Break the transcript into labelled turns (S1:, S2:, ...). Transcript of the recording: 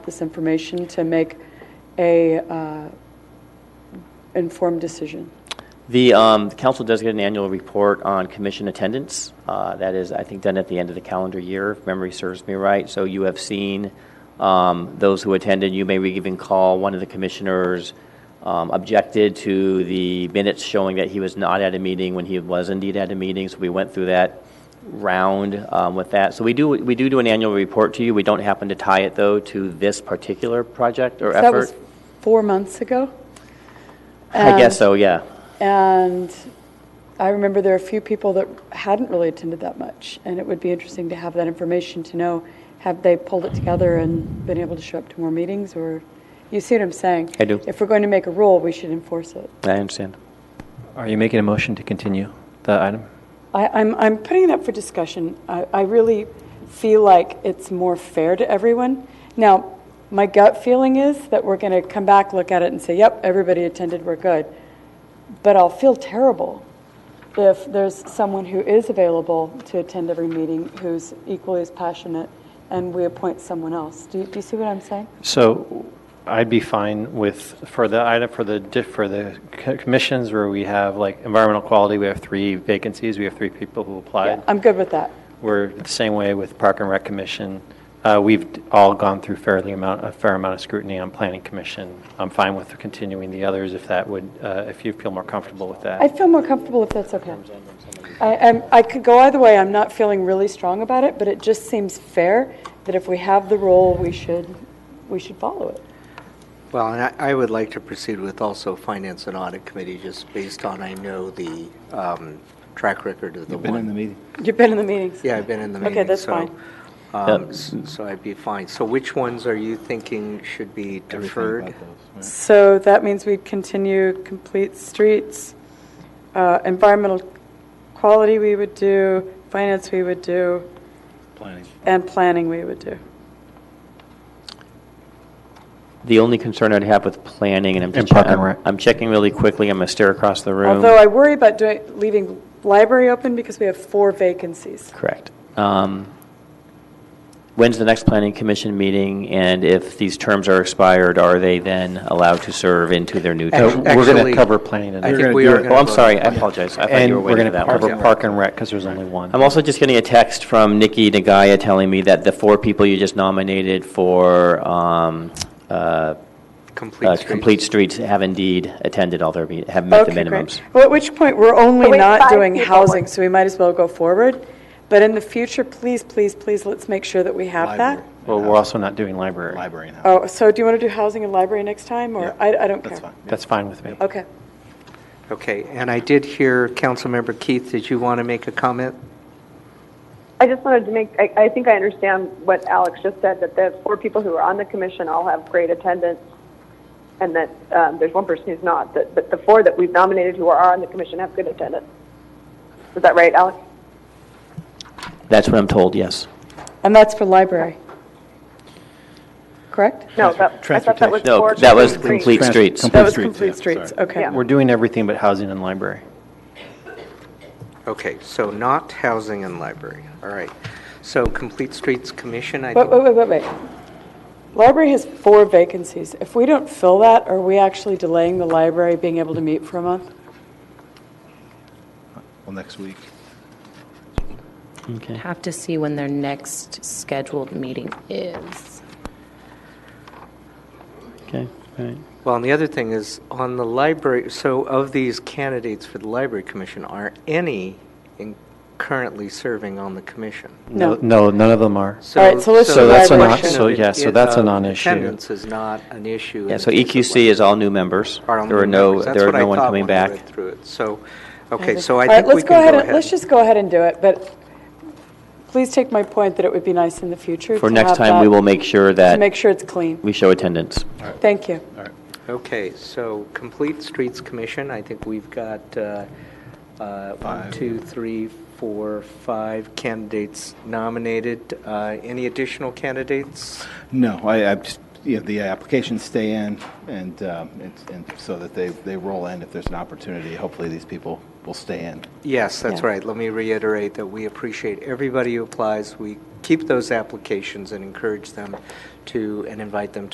S1: this information to make a uh, informed decision.
S2: The, um, the council does get an annual report on commission attendance. Uh, that is, I think, done at the end of the calendar year, if memory serves me right. So you have seen um, those who attended. You may even call one of the commissioners um, objected to the minutes showing that he was not at a meeting when he was indeed at a meeting. So we went through that round um, with that. So we do we do do an annual report to you. We don't happen to tie it though to this particular project or effort.
S1: That was four months ago.
S2: I
S1: and-
S2: guess so. Yeah.
S1: And I remember there are a few people that hadn't really attended that much, and it would be interesting to have that information to know, have they pulled it together and been able to show up to more meetings, or, you see what I'm saying?
S2: I do.
S1: If we're going to make a rule, we should enforce it.
S2: I understand.
S3: Are you making a motion to continue the item?
S1: I, I'm, I'm putting it up for discussion. I, I really feel like it's more fair to everyone. Now, my gut feeling is that we're going to come back, look at it, and say, yep, everybody attended, we're good. But I'll feel terrible if there's someone who is available to attend every meeting who's equally as passionate and we appoint someone else. Do you, do you see what I'm saying?
S3: So I'd be fine with, for the item, for the, di- for the co- commissions where we have like environmental quality, we have three vacancies, we have three people who applied.
S1: I'm good with that.
S3: We're the same way with Park and Rec Commission. Uh, We've all gone through fairly amount, a fair amount of scrutiny on Planning Commission. I'm fine with continuing the others if that would, uh, if you feel more comfortable with that.
S1: I feel more comfortable if that's okay. I, I'm, I could go either way. I'm not feeling really strong about it, but it just seems fair that if we have the role, we should, we should follow it.
S4: Well, and I- I would like to proceed with also Finance and Audit Committee, just based on, I know the um, track record of the
S5: Been in the
S4: one.
S5: meeting.
S1: You've been in the meetings.
S4: Yeah, I've been in the
S1: Okay,
S4: meeting.
S1: that's
S4: so,
S1: fine.
S4: um, s- So I'd be fine. So which ones are you thinking should be
S5: Everything
S4: deferred?
S5: about those, right?
S1: So that means we continue complete streets, uh, environmental quality we would do, finance we would do,
S5: Planning.
S1: and planning we would do.
S2: The only concern I'd have with planning, and I'm
S3: And
S2: just,
S3: Park and Rec.
S2: I'm I'm checking really quickly, I'm going to stare across the room.
S1: Although I worry about doing, leaving library open because we have four vacancies.
S2: Correct. Um, When's the next planning commission meeting, and if these terms are expired, are they then allowed to serve into their new
S3: So
S2: term?
S4: Actu-
S3: We're going to
S4: actually-
S3: cover planning
S4: I
S5: We're
S3: tonight.
S4: think
S5: gonna
S4: we
S5: do
S4: are
S5: it.
S4: going to.
S2: Well, Oh, I'm sorry, I apologize,
S4: Uh,
S2: I thought you were
S3: And we're
S2: waiting
S3: going
S2: for
S3: to
S2: that one.
S3: cover Park and Rec because there's only one.
S2: I'm also just getting a text from Nikki Nagaya telling me that the four people you just nominated for um, uh, uh,
S4: Complete streets.
S2: Complete Streets have indeed attended all their, me- have met the
S1: Okay,
S2: minimums.
S1: great. Well, at which point, we're only
S6: Wait,
S1: not
S6: five
S1: doing
S6: people
S1: housing,
S6: were-
S1: so we might as well go forward. But in the future, please, please, please, let's make sure that we have that.
S5: Library.
S3: Well, we're also not doing library.
S5: Library and housing.
S1: Oh, so do you want to do housing and library next time, or,
S5: Yeah,
S1: I, I don't care.
S5: That's fine.
S3: That's fine with me.
S1: Okay.
S4: Okay, and I did hear, Councilmember Keith, did you want to make a comment?
S6: I just wanted to make, I, I think I understand what Alex just said, that the four people who are on the commission all have great attendance, and that um, there's one person who's not, that, but the four that we've nominated who are on the commission have good attendance. Is that right, Alex?
S2: That's what I'm told, yes.
S1: And that's for library. Correct?
S6: No, that, I thought that was
S2: No,
S6: four.
S2: that was
S6: to three.
S2: Complete
S5: Trans-
S2: Streets.
S1: That was
S5: Streets,
S1: complete
S5: yeah,
S1: streets,
S5: sorry.
S1: okay.
S6: Yeah.
S3: We're doing everything but housing and library.
S4: Okay, so not housing and library, all right. So Complete Streets Commission, I
S1: Wait,
S4: think,
S1: wait, wait, wait, wait. Library has four vacancies. If we don't fill that, are we actually delaying the library being able to meet for a month?
S5: Well, next week.
S2: Okay.
S7: Have to see when their next scheduled meeting is.
S2: Okay, all right.
S4: well, and the other thing is, on the library, so of these candidates for the Library Commission, are any in- currently serving on the commission?
S1: No.
S3: No, none of them are.
S1: All right, so let's
S3: So do that's a
S4: the
S3: non-
S4: question
S3: so
S4: of
S3: yeah, so
S4: it-
S3: that's a
S4: of
S3: non-issue.
S4: Attendance is not an issue.
S2: Yeah,
S4: in
S2: so
S4: the case of
S2: EQC is all new members.
S4: our own
S2: There are no,
S4: members. That's
S2: there are
S4: what I
S2: no one
S4: thought
S2: coming
S4: when I
S2: back.
S4: read through it. So, okay, so
S1: All
S4: I
S1: right,
S4: think we
S1: let's
S4: can
S1: go ahead, and-
S4: ahead.
S1: let's just go ahead and do it, but please take my point that it would be nice in the future
S2: For
S1: to
S2: next
S1: have
S2: time, we
S1: that-
S2: will make sure
S1: To make
S2: that
S1: sure it's clean.
S2: we show attendance.
S1: Thank you.
S5: All right.
S4: Okay, so Complete Streets Commission, I think we've got uh, uh, one,
S5: Five.
S4: two, three, four, five candidates nominated. Uh, Any additional candidates?
S5: No, I, I just, you know, the applications stay in and, um, it's- and so that they, they roll in if there's an opportunity. Hopefully, these people will stay in.
S4: Yes, that's
S1: Yeah.
S4: right. Let me reiterate that we appreciate everybody who applies. We keep those applications and encourage them to, and invite them to.